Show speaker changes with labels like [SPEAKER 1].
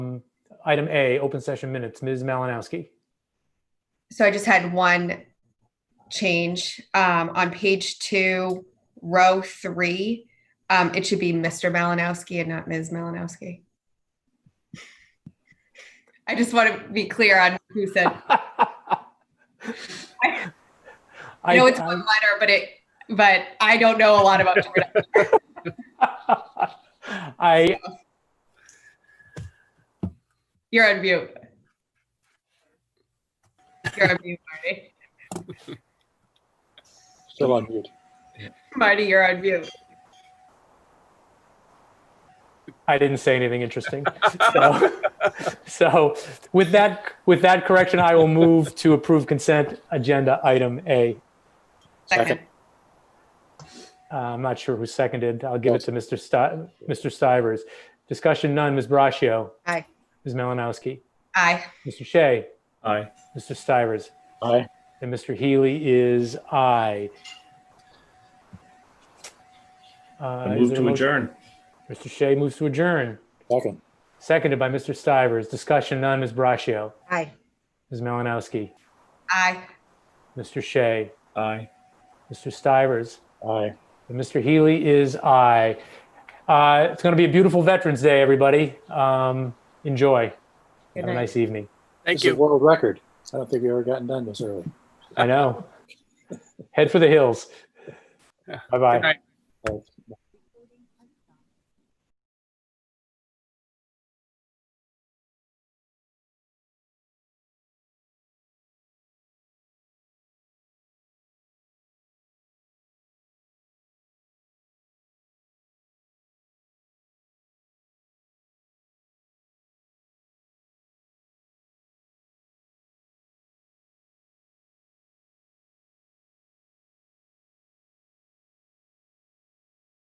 [SPEAKER 1] item A, open session minutes, Ms. Malinowski.
[SPEAKER 2] So I just had one change, um, on page two, row three. Um, it should be Mr. Malinowski and not Ms. Malinowski. I just want to be clear on who said,
[SPEAKER 1] I-
[SPEAKER 2] I know it's one letter, but it, but I don't know a lot about Jordan.
[SPEAKER 1] I,
[SPEAKER 2] You're on mute. You're on mute, Marty.
[SPEAKER 3] Still on mute.
[SPEAKER 2] Marty, you're on mute.
[SPEAKER 1] I didn't say anything interesting. So, so with that, with that correction, I will move to approve consent agenda item A.
[SPEAKER 2] Second.
[SPEAKER 1] Uh, I'm not sure who seconded. I'll give it to Mr. Sti- Mr. Stivers. Discussion none. Ms. Braccio.
[SPEAKER 2] Aye.
[SPEAKER 1] Ms. Malinowski.
[SPEAKER 2] Aye.
[SPEAKER 1] Mr. Shea.
[SPEAKER 4] Aye.
[SPEAKER 1] Mr. Stivers.
[SPEAKER 3] Aye.
[SPEAKER 1] And Mr. Healy is aye. Uh,
[SPEAKER 4] I
[SPEAKER 1] is
[SPEAKER 4] move
[SPEAKER 1] there a
[SPEAKER 4] to
[SPEAKER 1] motion?
[SPEAKER 4] adjourn.
[SPEAKER 1] Mr. Shea moves to adjourn,
[SPEAKER 3] Second.
[SPEAKER 1] seconded by Mr. Stivers. Discussion none. Ms. Braccio.
[SPEAKER 2] Aye.
[SPEAKER 1] Ms. Malinowski.
[SPEAKER 2] Aye.
[SPEAKER 1] Mr. Shea.
[SPEAKER 4] Aye.
[SPEAKER 1] Mr. Stivers.
[SPEAKER 3] Aye.
[SPEAKER 1] And Mr. Healy is aye. Uh, it's going to be a beautiful Veterans Day, everybody. Um, enjoy.
[SPEAKER 2] Good
[SPEAKER 1] Have a
[SPEAKER 2] night.
[SPEAKER 1] nice evening.
[SPEAKER 3] This is world record. I don't think we ever gotten done this early.
[SPEAKER 1] I know. Head for the hills. Bye bye.
[SPEAKER 3] Right.